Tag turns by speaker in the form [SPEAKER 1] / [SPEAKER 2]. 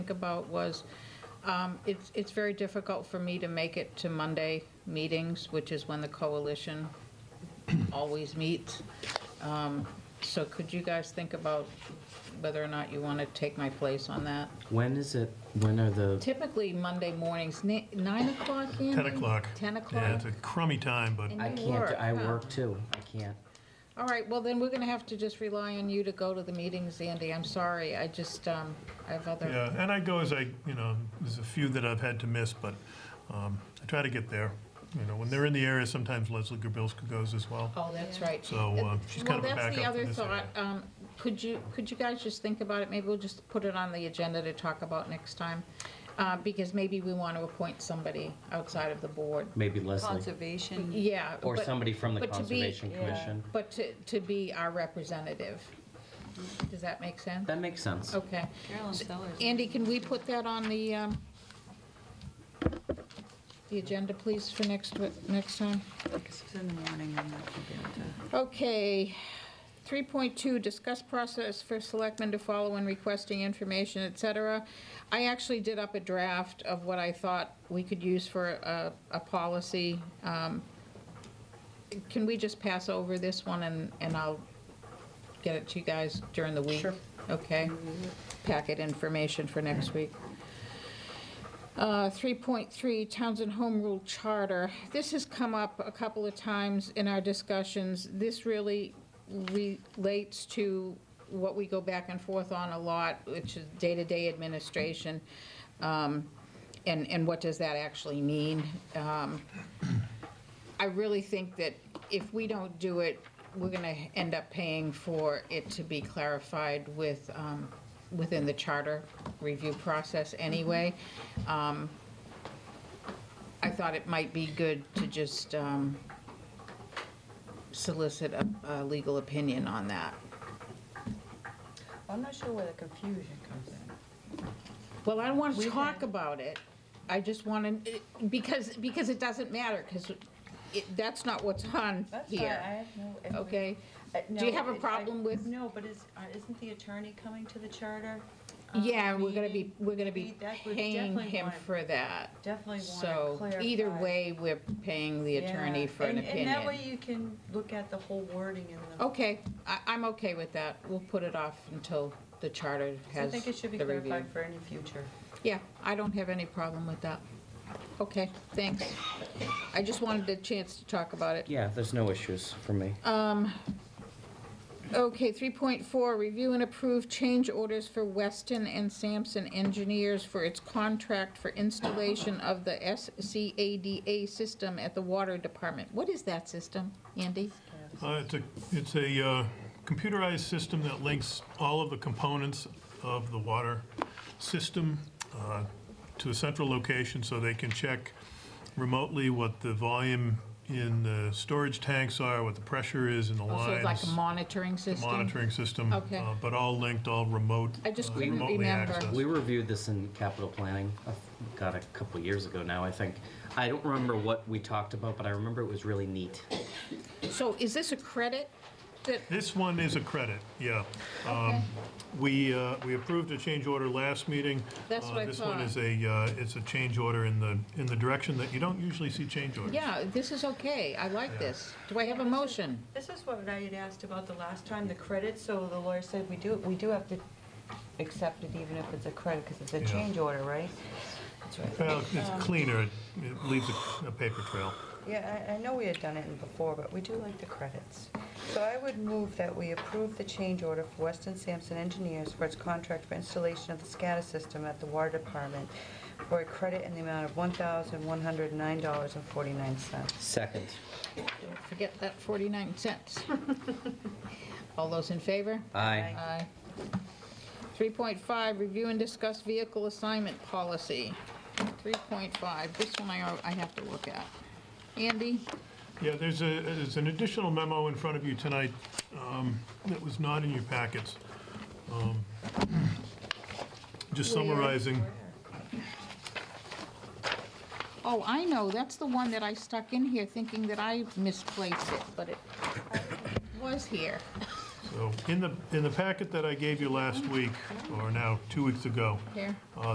[SPEAKER 1] about was, um, it's, it's very difficult for me to make it to Monday meetings, which is when the coalition always meets. Um, So could you guys think about whether or not you want to take my place on that?
[SPEAKER 2] When is it, when are the,
[SPEAKER 1] Typically, Monday mornings, ni- nine o'clock, Andy?
[SPEAKER 3] 10 o'clock.
[SPEAKER 1] 10
[SPEAKER 3] Yeah,
[SPEAKER 1] o'clock?
[SPEAKER 3] it's a crummy time, but
[SPEAKER 1] And
[SPEAKER 2] I
[SPEAKER 1] you
[SPEAKER 2] can't, do- I
[SPEAKER 1] huh?
[SPEAKER 2] work too, I can't.
[SPEAKER 1] All right, well, then we're going to have to just rely on you to go to the meetings, Andy. I'm sorry, I just, um, I have other,
[SPEAKER 3] yeah, and I go as I, you know, there's a few that I've had to miss, but um, I try to get there. You know, when they're in the area, sometimes Leslie Gerbilska goes as well.
[SPEAKER 1] oh, that's right.
[SPEAKER 3] So, uh, she's kind of a
[SPEAKER 1] Well,
[SPEAKER 3] backup in
[SPEAKER 1] that's
[SPEAKER 3] this
[SPEAKER 1] the other
[SPEAKER 3] area.
[SPEAKER 1] thought. Um, Could you, could you guys just think about it? Maybe we'll just put it on the agenda to talk about next time, uh, because maybe we want to appoint somebody outside of the board.
[SPEAKER 2] Maybe Leslie,
[SPEAKER 4] Conservation,
[SPEAKER 1] Yeah.
[SPEAKER 2] or
[SPEAKER 1] but- e-
[SPEAKER 2] somebody from the
[SPEAKER 1] but to be-
[SPEAKER 2] Conservation
[SPEAKER 4] yeah.
[SPEAKER 2] Commission.
[SPEAKER 1] But to, to be our representative. Does that make sense?
[SPEAKER 2] That makes sense.
[SPEAKER 1] Okay.
[SPEAKER 4] Carolyn Sellers.
[SPEAKER 1] Andy, can we put that on the, um, the agenda, please, for next, wi- next time?
[SPEAKER 4] Because it's in the morning, I'm not gonna be able to.
[SPEAKER 1] Okay, 3.2, discuss process for selectmen to follow when requesting information, et cetera. I actually did up a draft of what I thought we could use for a, a policy. Um, Can we just pass over this one and, and I'll get it to you guys during the week?
[SPEAKER 4] Sure.
[SPEAKER 1] Okay, packet information for next week. Uh, 3.3 Townsend Home Rule Charter. This has come up a couple of times in our discussions. This really relates to what we go back and forth on a lot, which is day-to-day administration, um, and and what does that actually mean? Um, I really think that if we don't do it, we're gonna end up paying for it to be clarified with, um, within the charter review process anyway. Um, I thought it might be good to just, um, solicit a, a legal opinion on that.
[SPEAKER 4] I'm not sure where the confusion comes in.
[SPEAKER 1] Well, I don't want
[SPEAKER 4] We
[SPEAKER 1] to
[SPEAKER 4] can-
[SPEAKER 1] talk about it. I just want to, because, because it doesn't matter, because it, that's not what's on
[SPEAKER 4] That's fine, I
[SPEAKER 1] here,
[SPEAKER 4] have no. if we-
[SPEAKER 1] okay?
[SPEAKER 4] Uh,
[SPEAKER 1] Do you
[SPEAKER 4] no,
[SPEAKER 1] have a
[SPEAKER 4] it- I-
[SPEAKER 1] problem with-
[SPEAKER 4] No, but is, uh, isn't the attorney coming to the charter? um,
[SPEAKER 1] Yeah, we're gonna be,
[SPEAKER 4] meeting?
[SPEAKER 1] we're gonna
[SPEAKER 4] We-
[SPEAKER 1] be
[SPEAKER 4] that would
[SPEAKER 1] paying
[SPEAKER 4] definitely
[SPEAKER 1] him
[SPEAKER 4] want-
[SPEAKER 1] for that.
[SPEAKER 4] Definitely want to
[SPEAKER 1] So
[SPEAKER 4] clarify.
[SPEAKER 1] either way, we're paying the
[SPEAKER 4] Yeah,
[SPEAKER 1] attorney for an
[SPEAKER 4] and- And that way
[SPEAKER 1] opinion. Oh.
[SPEAKER 4] you can look at the whole wording in the.
[SPEAKER 1] Okay, I, I'm okay with that. We'll put it off until the charter
[SPEAKER 4] I
[SPEAKER 1] has the
[SPEAKER 4] think it should be
[SPEAKER 1] review.
[SPEAKER 4] clarified for any future.
[SPEAKER 1] Yeah, I don't have any problem with that. Okay, thanks. I just wanted a chance to talk about it.
[SPEAKER 2] Yeah, there's no issues for me.
[SPEAKER 1] Um, Okay, 3.4, review and approve change orders for Weston and Sampson Engineers for its contract for installation of the SCADA system at the Water Department. What is that system, Andy?
[SPEAKER 3] Uh, It's a, it's a uh, computerized system that links all of the components of the water system uh, to a central location so they can check remotely what the volume in the storage tanks are, what the pressure is in the lines.
[SPEAKER 1] Also, Oh, it's like a monitoring system?
[SPEAKER 3] monitoring system.
[SPEAKER 1] Okay.
[SPEAKER 3] uh, But all linked, all remote.
[SPEAKER 1] I just
[SPEAKER 3] uh,
[SPEAKER 1] couldn't
[SPEAKER 3] remotely
[SPEAKER 1] remember.
[SPEAKER 3] accessed.
[SPEAKER 2] We reviewed this in capital planning, uh, God, a couple years ago now, I think. I don't remember what we talked about, but I remember it was really neat.
[SPEAKER 1] So is this a credit that,
[SPEAKER 3] This one is a credit, yeah. Um,
[SPEAKER 1] okay,
[SPEAKER 3] We, uh, we approved a change order last meeting.
[SPEAKER 1] That's
[SPEAKER 3] Uh,
[SPEAKER 1] what I
[SPEAKER 3] This one
[SPEAKER 1] thought.
[SPEAKER 3] is a, uh, it's a change order in the, in the direction that you don't usually see change orders.
[SPEAKER 1] yeah, this is okay, I like this. Do I have a motion?
[SPEAKER 4] This is what I had asked about the last time, the credit, so the lawyer said we do, we do have to accept it even if it's a credit, because it's a
[SPEAKER 3] Yeah.
[SPEAKER 4] change order, right? That's right.
[SPEAKER 3] Well, it's
[SPEAKER 1] um,
[SPEAKER 3] cleaner, it it leaves a- a paper trail.
[SPEAKER 4] Yeah, I, I know we had done it in before, but we do like the credits. So I would move that we approve the change order for Weston Sampson Engineers for its contract for installation of the SCADA system at the Water Department for a credit in the amount of $1,109.49.
[SPEAKER 2] Second.
[SPEAKER 1] Don't Forget that 49 cents. All those in favor?
[SPEAKER 2] Aye.
[SPEAKER 1] Aye. 3.5, review and discuss vehicle assignment policy. 3.5, this one I, I have to look at. Andy?
[SPEAKER 3] Yeah, there's a, there's an additional memo in front of you tonight um, that was not in your packets. Um, Just
[SPEAKER 1] Where?
[SPEAKER 3] summarizing,
[SPEAKER 1] Oh, I know, that's the one that I stuck in here thinking that I misplaced it, but it was here.
[SPEAKER 3] so, in the, in the packet that I gave you last week, or now, two weeks ago,
[SPEAKER 1] Here.